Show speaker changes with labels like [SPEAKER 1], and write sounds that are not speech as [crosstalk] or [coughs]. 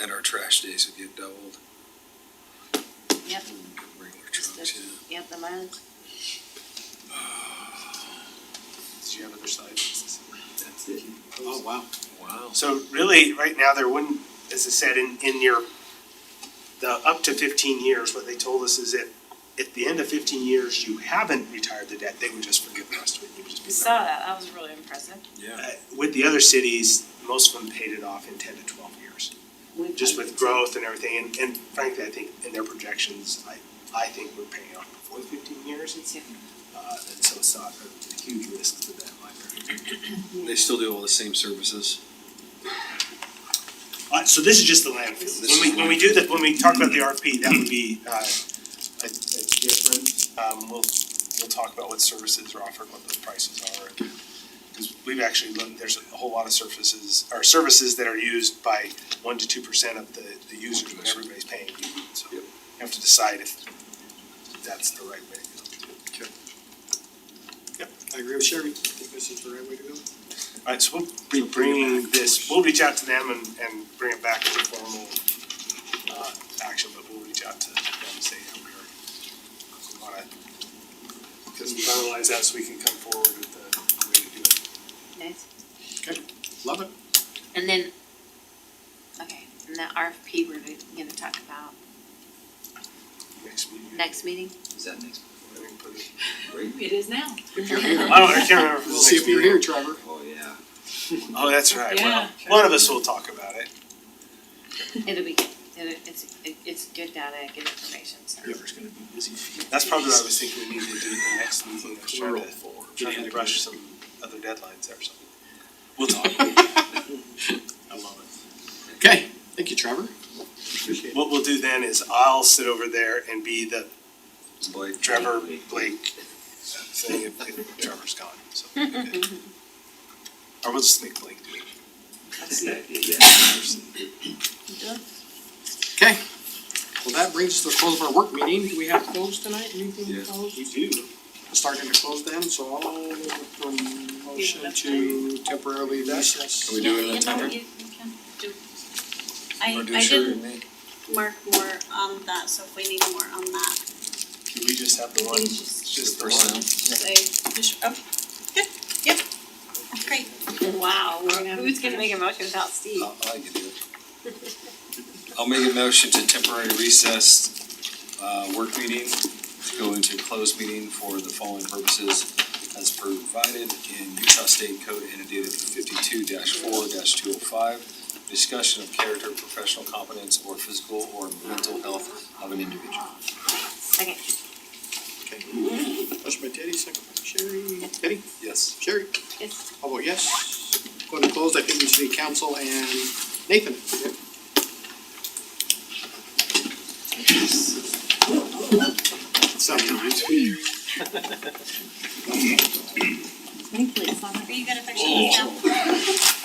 [SPEAKER 1] And our trash days would get doubled.
[SPEAKER 2] Yep.
[SPEAKER 1] Regular
[SPEAKER 2] Just
[SPEAKER 1] trucks,
[SPEAKER 2] a-
[SPEAKER 1] yeah.
[SPEAKER 2] Yep, the mileage.
[SPEAKER 3] Did you have other slides?
[SPEAKER 1] That's it.
[SPEAKER 3] Oh, wow.
[SPEAKER 1] Wow.
[SPEAKER 3] So really, right now, there wouldn't, as I said, in, in your, the up to fifteen years, what they told us is that at the end of fifteen years, you haven't retired the debt, they would just forgive the rest of it, you would just
[SPEAKER 4] We
[SPEAKER 3] be.
[SPEAKER 4] saw that, that was really impressive.
[SPEAKER 1] Yeah.
[SPEAKER 3] Uh, With the other cities, most of them paid it off in ten to twelve years,
[SPEAKER 2] We've
[SPEAKER 3] just
[SPEAKER 2] got
[SPEAKER 3] with
[SPEAKER 2] it.
[SPEAKER 3] growth and everything, and, and frankly, I think in their projections, I, I think we're paying off before fifteen years.
[SPEAKER 2] It's-
[SPEAKER 3] Uh, and so it's not a huge risk to that library.
[SPEAKER 1] They still do all the same services.
[SPEAKER 3] Uh, so this is just the landfill.
[SPEAKER 1] This is
[SPEAKER 3] When we, when we do that, when we talk about the RFP, that would be, uh, a, a different, um, we'll, we'll talk about what services are offered, what the prices are. Cause we've actually looked, there's a whole lot of services, or services that are used by one to two percent of the, the users, but everybody's paying. So you
[SPEAKER 1] Yep.
[SPEAKER 3] have to decide if that's the right way to go.
[SPEAKER 5] I agree with Sherry, I think this is the right way to go.
[SPEAKER 3] Alright, so we'll be bringing this, we'll reach out to them and, and bring it back as a formal, uh, action, but we'll reach out to them and say, yeah, we're, we wanna, because finalize that so we can come forward with the way to do it.
[SPEAKER 2] Nice.
[SPEAKER 5] Love it.
[SPEAKER 2] And then, okay, and that RFP we're gonna talk about
[SPEAKER 3] Next meeting.
[SPEAKER 2] next
[SPEAKER 3] [coughs]
[SPEAKER 2] meeting?
[SPEAKER 1] Is that next?
[SPEAKER 3] I think put it-
[SPEAKER 4] It is now.
[SPEAKER 5] If you're here,
[SPEAKER 3] I don't, I can't remember. if it's
[SPEAKER 5] we'll see
[SPEAKER 3] next
[SPEAKER 5] if you're
[SPEAKER 3] meeting.
[SPEAKER 5] here, Trevor.
[SPEAKER 1] Oh, yeah.
[SPEAKER 3] Oh, that's right, well,
[SPEAKER 4] Yeah, sure.
[SPEAKER 3] one of us will talk about it.
[SPEAKER 2] It'll be, good. It'll- it's, it- it's good data, good information, so.
[SPEAKER 5] Trevor's gonna be busy.
[SPEAKER 3] That's probably what I was thinking we need to do the next meeting, I was trying
[SPEAKER 5] Plural
[SPEAKER 3] to,
[SPEAKER 5] four.
[SPEAKER 3] trying to rush some other deadlines there or something. We'll talk,
[SPEAKER 5] I love it. Okay, thank you, Trevor. Appreciate
[SPEAKER 3] what we'll do then is I'll sit over there and be the
[SPEAKER 1] Blake.
[SPEAKER 3] Trevor, Blake, saying if- if Trevor's gone, so. we'll be good. Or we'll just make Blake do it.
[SPEAKER 5] Okay, well, that brings us to the close of our work meeting, do we have closed tonight, anything
[SPEAKER 1] Yes.
[SPEAKER 5] closed?
[SPEAKER 3] You do.
[SPEAKER 5] Starting to close then, so I'll look for a motion to temporarily recess.
[SPEAKER 1] Can we do it in a
[SPEAKER 6] Yeah, you know,
[SPEAKER 1] timer?
[SPEAKER 6] you- you can do-
[SPEAKER 1] Or do
[SPEAKER 6] I, I
[SPEAKER 1] Sherry and
[SPEAKER 6] didn't
[SPEAKER 1] me?
[SPEAKER 6] mark more on that, so if we need more on that,
[SPEAKER 3] Can we just have the one,
[SPEAKER 6] please just
[SPEAKER 3] just the
[SPEAKER 1] Personnel.
[SPEAKER 3] one?
[SPEAKER 6] say, just, okay, good, yep, great.
[SPEAKER 2] Wow, we're gonna. Who's gonna make a motion without Steve?
[SPEAKER 1] I'll, Oh, I can do it. I'll make a motion to temporary recess, uh, work meeting, to go into closed meeting for the following purposes as provided in Utah State Code annotated fifty-two four two oh five. Discussion of character, professional competence, or physical or mental health of an individual.
[SPEAKER 2] Second.
[SPEAKER 5] Okay. Motion by Teddy, second by Sherry. Teddy,
[SPEAKER 1] Yes.
[SPEAKER 5] Sherry,
[SPEAKER 2] Yes.
[SPEAKER 5] how about Oh, yes? Going to close, I think we should be council and Nathan. Sometimes.
[SPEAKER 2] Thankfully, it's not.
[SPEAKER 6] Are you gonna fix it now?